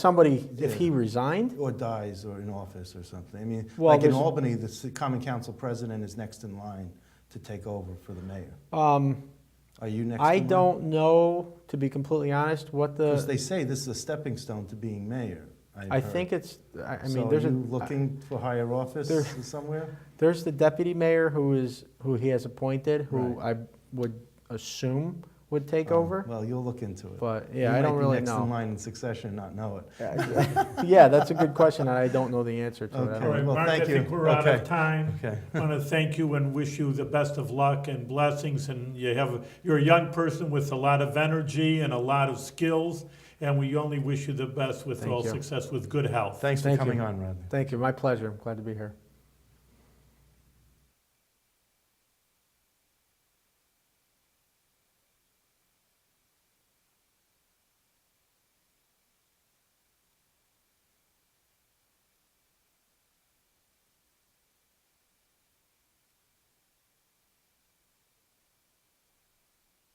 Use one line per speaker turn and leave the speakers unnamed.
somebody, if he resigned,
or dies or in office or something. I mean,
Well,
like in
there's-
Albany, the ci- common council president is next in line to take over for the mayor.
um,
Are you next?
I
in line?
don't know, to be completely honest, what
'Cause
the,
they say this is a stepping stone to being mayor. I've
I
heard.
think it's, I I
so
mean, there's
are
a,
you looking for higher office
there-
somewhere?
there's the deputy mayor who is, who he has appointed, who I would assume would take
Um,
over,
Well, you'll look into it.
but
You
yeah, I
might
don't
be
really
next in
know.
line in succession, and not know it.
Yeah, that's a good question, and I don't know the answer to it. I
Okay.
All
don't-
right,
well,
Mark, I
thank
think
you.
we're out
Okay.
of time.
Okay.
I want to thank you and wish you the best of luck and blessings. And you have, you're a young person with a lot of energy and a lot of skills. And we only wish you the best with
Thank
all
you.
success, with good health.
Thanks for
Thank you.
coming on, Rodney.
Thank you, my pleasure, I'm glad to be here.